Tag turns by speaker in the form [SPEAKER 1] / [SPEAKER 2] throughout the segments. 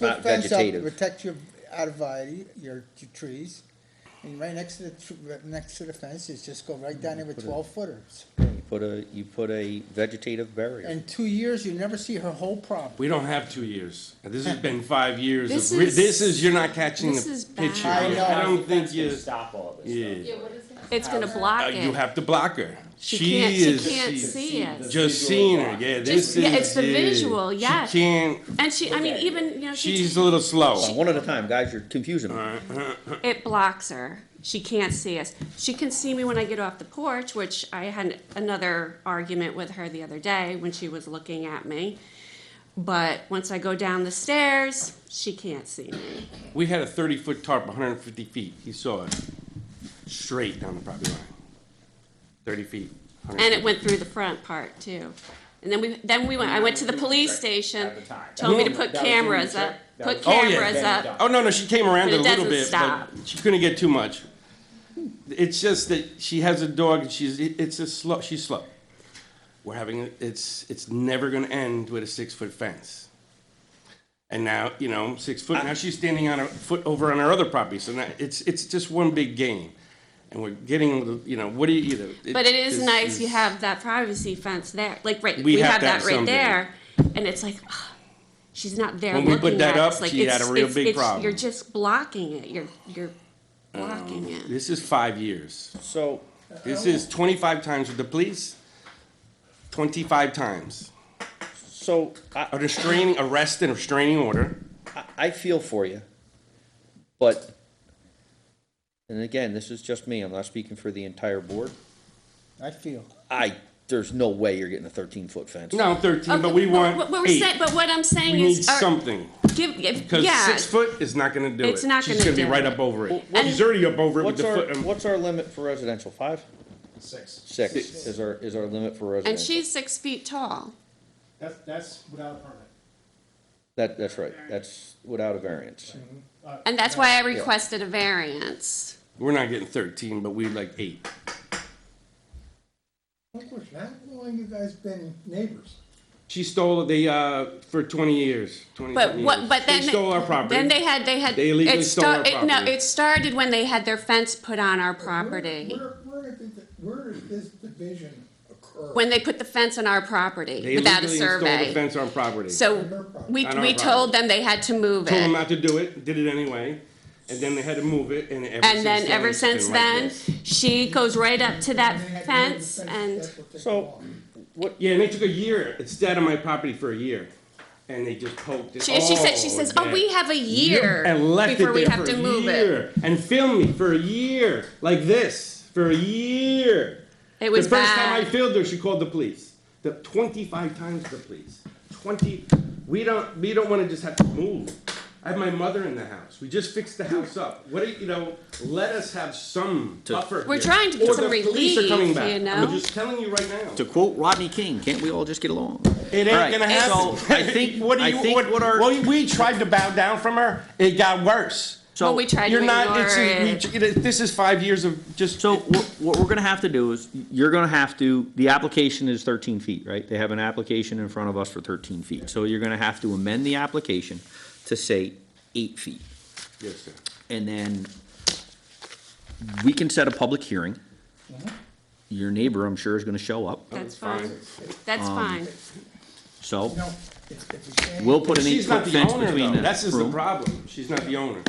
[SPEAKER 1] Not
[SPEAKER 2] the fence up to
[SPEAKER 1] vegetative.
[SPEAKER 2] protect your arborvitae, your, your trees, and right next to the, tr- right next to the fence is just go right down there with twelve footers.
[SPEAKER 1] You put a, you put a vegetative barrier.
[SPEAKER 2] In two years, you never see her whole property.
[SPEAKER 3] We don't have two years. This has been five years
[SPEAKER 4] This
[SPEAKER 3] of, re-
[SPEAKER 4] is-
[SPEAKER 3] this is, you're not catching
[SPEAKER 4] this is
[SPEAKER 3] the
[SPEAKER 4] bad.
[SPEAKER 3] picture.
[SPEAKER 2] I know.
[SPEAKER 3] I don't think you,
[SPEAKER 5] Stop all this stuff.
[SPEAKER 3] yeah.
[SPEAKER 4] It's gonna
[SPEAKER 3] Uh,
[SPEAKER 4] block
[SPEAKER 3] You
[SPEAKER 4] it.
[SPEAKER 3] have to block her.
[SPEAKER 4] She can't, she
[SPEAKER 3] is-
[SPEAKER 4] can't
[SPEAKER 3] she's
[SPEAKER 4] see it.
[SPEAKER 3] Just seeing her, yeah, this is.
[SPEAKER 4] Just- yeah, it's the
[SPEAKER 3] yeah.
[SPEAKER 4] visual, yeah.
[SPEAKER 3] She can't,
[SPEAKER 4] And she, I mean, even, you know, she,
[SPEAKER 3] she's a little
[SPEAKER 1] Hold on,
[SPEAKER 3] slow.
[SPEAKER 1] One at a time, guys, you're confusing me.
[SPEAKER 4] it blocks her. She can't see us. She can see me when I get off the porch, which I had another argument with her the other day when she was looking at me. But once I go down the stairs, she can't see me.
[SPEAKER 3] We had a thirty foot tarp, hundred and fifty feet. He saw it straight down the property line. Thirty feet. 150.
[SPEAKER 4] And it went through the front part too. And then we, then we went, I went to the police station,
[SPEAKER 5] At the time.
[SPEAKER 4] told me to
[SPEAKER 5] That
[SPEAKER 4] put
[SPEAKER 5] was when you
[SPEAKER 4] cameras up,
[SPEAKER 5] checked. That
[SPEAKER 4] put
[SPEAKER 5] was-
[SPEAKER 3] Oh, yeah.
[SPEAKER 4] cameras
[SPEAKER 5] Then
[SPEAKER 4] up.
[SPEAKER 5] done.
[SPEAKER 3] Oh, no, no, she came around a
[SPEAKER 4] But it
[SPEAKER 3] little
[SPEAKER 4] doesn't
[SPEAKER 3] bit,
[SPEAKER 4] stop.
[SPEAKER 3] but she couldn't get too much. It's just that she has a dog and she's, it- it's a slow, she's slow. We're having, it's, it's never gonna end with a six-foot fence. And now, you know, six foot, now she's standing on a foot over on her other property, so now, it's, it's just one big game. And we're getting, you know, what do you, you know.
[SPEAKER 4] But it is
[SPEAKER 3] this
[SPEAKER 4] nice you have that privacy fence there, like right,
[SPEAKER 3] We
[SPEAKER 4] we
[SPEAKER 3] have
[SPEAKER 4] have
[SPEAKER 3] to have
[SPEAKER 4] that right
[SPEAKER 3] something.
[SPEAKER 4] there, and it's like, ah, she's not there
[SPEAKER 3] When we
[SPEAKER 4] looking
[SPEAKER 3] put
[SPEAKER 4] at
[SPEAKER 3] that
[SPEAKER 4] us,
[SPEAKER 3] up,
[SPEAKER 4] like,
[SPEAKER 3] she
[SPEAKER 4] it's-
[SPEAKER 3] had a real
[SPEAKER 4] it's-
[SPEAKER 3] big
[SPEAKER 4] it's-
[SPEAKER 3] problem.
[SPEAKER 4] You're just blocking it, you're, you're blocking it.
[SPEAKER 3] This is five years.
[SPEAKER 1] So,
[SPEAKER 3] This is twenty-five times with the police, twenty-five times.
[SPEAKER 1] so
[SPEAKER 3] a
[SPEAKER 1] I,
[SPEAKER 3] restraining arrest and restraining order.
[SPEAKER 1] I- I feel for you, but, and again, this is just me, I'm not speaking for the entire board.
[SPEAKER 2] I feel.
[SPEAKER 1] I, there's no way you're getting a thirteen-foot fence.
[SPEAKER 3] No, thirteen, but
[SPEAKER 4] Okay,
[SPEAKER 3] we want
[SPEAKER 4] what- what we're saying-
[SPEAKER 3] eight.
[SPEAKER 4] But what I'm
[SPEAKER 3] We
[SPEAKER 4] saying
[SPEAKER 3] need
[SPEAKER 4] is, uh,
[SPEAKER 3] something,
[SPEAKER 4] give, give-
[SPEAKER 3] because
[SPEAKER 4] yeah,
[SPEAKER 3] six foot is not gonna do it.
[SPEAKER 4] It's not
[SPEAKER 3] She's
[SPEAKER 4] gonna
[SPEAKER 3] gonna be
[SPEAKER 4] do
[SPEAKER 3] right
[SPEAKER 4] it.
[SPEAKER 3] up over it.
[SPEAKER 4] And-
[SPEAKER 3] She's already up over it with
[SPEAKER 1] What's
[SPEAKER 3] the
[SPEAKER 1] our,
[SPEAKER 3] foot.
[SPEAKER 6] um,
[SPEAKER 3] and-
[SPEAKER 1] what's our limit for residential, five?
[SPEAKER 7] Six.
[SPEAKER 1] Six
[SPEAKER 3] Six.
[SPEAKER 1] is our, is our limit for
[SPEAKER 4] and
[SPEAKER 1] residential.
[SPEAKER 4] she's six feet tall,
[SPEAKER 7] That's, that's without a permit.
[SPEAKER 1] That, that's right, that's without a variance.
[SPEAKER 7] Uh,
[SPEAKER 4] and that's why I requested a variance.
[SPEAKER 3] We're not getting thirteen, but we like eight.
[SPEAKER 7] Look, we're not long you guys been neighbors.
[SPEAKER 3] She stole it, they, uh, for twenty years, twenty
[SPEAKER 4] But
[SPEAKER 3] something years.
[SPEAKER 4] what, but then.
[SPEAKER 3] They stole our property.
[SPEAKER 4] Then they had, they had.
[SPEAKER 3] They illegally
[SPEAKER 4] it
[SPEAKER 3] stole our
[SPEAKER 4] sta- it- No,
[SPEAKER 3] property.
[SPEAKER 4] it started when they had their fence put on our
[SPEAKER 7] Where-
[SPEAKER 4] property.
[SPEAKER 7] Where, where did, the- where did this division occur?
[SPEAKER 4] when they put the fence on our property
[SPEAKER 3] They
[SPEAKER 4] without a
[SPEAKER 3] illegally installed a
[SPEAKER 4] survey.
[SPEAKER 3] fence on property.
[SPEAKER 4] So we,
[SPEAKER 3] On our
[SPEAKER 4] we told them they had to move
[SPEAKER 3] Told them
[SPEAKER 4] it.
[SPEAKER 3] not to do it, did it anyway, and then they had to move it, and ever since
[SPEAKER 4] And then ever
[SPEAKER 3] it's been
[SPEAKER 4] since
[SPEAKER 3] like
[SPEAKER 4] then,
[SPEAKER 3] this.
[SPEAKER 4] she goes right up to that
[SPEAKER 7] And they had to move the
[SPEAKER 4] fence and,
[SPEAKER 7] that's what they
[SPEAKER 1] So-
[SPEAKER 7] call it.
[SPEAKER 3] Yeah, and they took a year. It stayed on my property for a year, and they just poked it.
[SPEAKER 4] she, she said, she says, oh,
[SPEAKER 3] that-
[SPEAKER 4] we have a year
[SPEAKER 3] and left
[SPEAKER 4] before
[SPEAKER 3] it
[SPEAKER 4] we
[SPEAKER 3] there
[SPEAKER 4] have
[SPEAKER 3] for
[SPEAKER 4] to
[SPEAKER 3] a
[SPEAKER 4] move it.
[SPEAKER 3] year, and filmed me for a year like this for a year.
[SPEAKER 4] It was
[SPEAKER 3] the first time I
[SPEAKER 4] bad.
[SPEAKER 3] filmed her, she called the police. The twenty-five times the police. Twenty. We don't. We don't want to just have to move. I have my mother in the house. We just fixed the house up. What do you, you know? Let us have some buffer.
[SPEAKER 4] We're
[SPEAKER 3] here.
[SPEAKER 4] trying to get
[SPEAKER 3] Or
[SPEAKER 4] some
[SPEAKER 3] the police are coming
[SPEAKER 4] relief,
[SPEAKER 3] back.
[SPEAKER 4] you
[SPEAKER 3] I'm
[SPEAKER 4] know?
[SPEAKER 3] just telling you right now.
[SPEAKER 6] To quote Rodney King, can't we all just get along?
[SPEAKER 3] It ain't
[SPEAKER 6] All right,
[SPEAKER 3] gonna happen.
[SPEAKER 6] So I think,
[SPEAKER 3] what do
[SPEAKER 6] I
[SPEAKER 3] you,
[SPEAKER 6] think
[SPEAKER 3] what,
[SPEAKER 6] what our,
[SPEAKER 3] well, we tried to bow down from her. It got worse.
[SPEAKER 6] so.
[SPEAKER 4] Well, we tried to
[SPEAKER 3] You're not. It's
[SPEAKER 4] ignore
[SPEAKER 3] we-
[SPEAKER 4] it.
[SPEAKER 3] it- this is five years of just.
[SPEAKER 6] So what, what we're gonna have to do is, you're gonna have to, the application is thirteen feet, right? They have an application in front of us for thirteen feet. So you're gonna have to amend the application to say eight feet.
[SPEAKER 3] yes, sir.
[SPEAKER 6] And then we can set a public hearing.
[SPEAKER 3] Mm-hmm.
[SPEAKER 6] Your neighbor, I'm sure, is gonna show up,
[SPEAKER 4] That's
[SPEAKER 3] fine. Um,
[SPEAKER 4] fine. That's fine.
[SPEAKER 6] so
[SPEAKER 7] You know, if, if it's shame,
[SPEAKER 6] we'll put an
[SPEAKER 3] She's not
[SPEAKER 6] eight-foot
[SPEAKER 3] the
[SPEAKER 6] fence
[SPEAKER 3] owner
[SPEAKER 6] between
[SPEAKER 3] though.
[SPEAKER 6] the
[SPEAKER 3] That's just the
[SPEAKER 6] room.
[SPEAKER 3] problem. She's not the owner.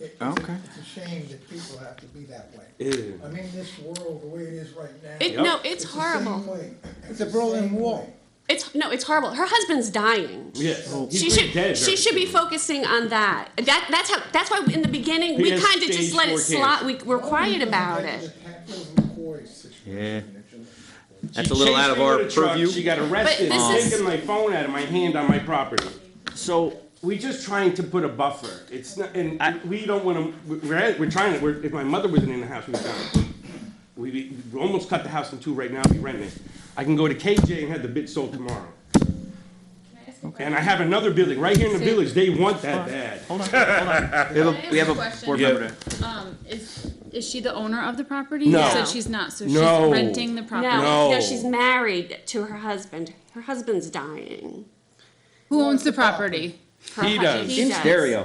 [SPEAKER 7] it-
[SPEAKER 6] Okay.
[SPEAKER 7] It's a shame that people have to be that way.
[SPEAKER 3] Ew.
[SPEAKER 7] I mean, this world, the way it is right now.
[SPEAKER 4] It,
[SPEAKER 3] Yep.
[SPEAKER 4] no, it's
[SPEAKER 7] the same
[SPEAKER 4] horrible.
[SPEAKER 7] way.
[SPEAKER 2] It's a
[SPEAKER 7] the
[SPEAKER 2] Berlin
[SPEAKER 7] same
[SPEAKER 2] Wall.
[SPEAKER 7] way.
[SPEAKER 4] It's, no, it's horrible. Her husband's dying.
[SPEAKER 3] Yes. He's
[SPEAKER 4] She
[SPEAKER 3] been dead
[SPEAKER 4] should,
[SPEAKER 3] very
[SPEAKER 4] she should be
[SPEAKER 3] soon.
[SPEAKER 4] focusing on that. That, that's how, that's why in the beginning,
[SPEAKER 3] He
[SPEAKER 4] we
[SPEAKER 3] has
[SPEAKER 4] kind of
[SPEAKER 3] stage
[SPEAKER 4] just let
[SPEAKER 3] four
[SPEAKER 4] it slide, we, we're
[SPEAKER 7] Why are we
[SPEAKER 4] quiet
[SPEAKER 7] going
[SPEAKER 4] about
[SPEAKER 7] back
[SPEAKER 4] it.
[SPEAKER 7] to the Hatfield McCoy situation?
[SPEAKER 6] That's
[SPEAKER 3] She
[SPEAKER 6] a little
[SPEAKER 3] chased
[SPEAKER 6] out of
[SPEAKER 3] me
[SPEAKER 6] our
[SPEAKER 3] with a truck.
[SPEAKER 6] purview.
[SPEAKER 3] She got arrested.
[SPEAKER 4] this
[SPEAKER 3] for
[SPEAKER 4] is-
[SPEAKER 3] Taking my phone out of my hand on my property.
[SPEAKER 6] So
[SPEAKER 3] We're just trying to put a buffer. It's not, and
[SPEAKER 6] I-
[SPEAKER 3] we don't want to. We're, we're trying to. We're, if my mother wasn't in the house, we'd done. We, we, we almost cut the house in two right now. We rent it. I can go to KJ and have the bid sold tomorrow. And I have another building right here in the village. They want that bad.
[SPEAKER 6] we have a, we have a
[SPEAKER 8] Question.
[SPEAKER 6] board
[SPEAKER 3] Yeah.
[SPEAKER 6] member to-
[SPEAKER 8] Um, is, is she the owner of the property?
[SPEAKER 3] No.
[SPEAKER 8] So she's not, so she's
[SPEAKER 3] No.
[SPEAKER 8] renting the property.
[SPEAKER 4] No,
[SPEAKER 3] No.
[SPEAKER 4] no, she's married to her husband. Her husband's dying.
[SPEAKER 8] Who owns the property?
[SPEAKER 9] Her
[SPEAKER 10] He
[SPEAKER 9] hu-
[SPEAKER 10] does.
[SPEAKER 9] he
[SPEAKER 4] In
[SPEAKER 9] does.
[SPEAKER 4] stereo.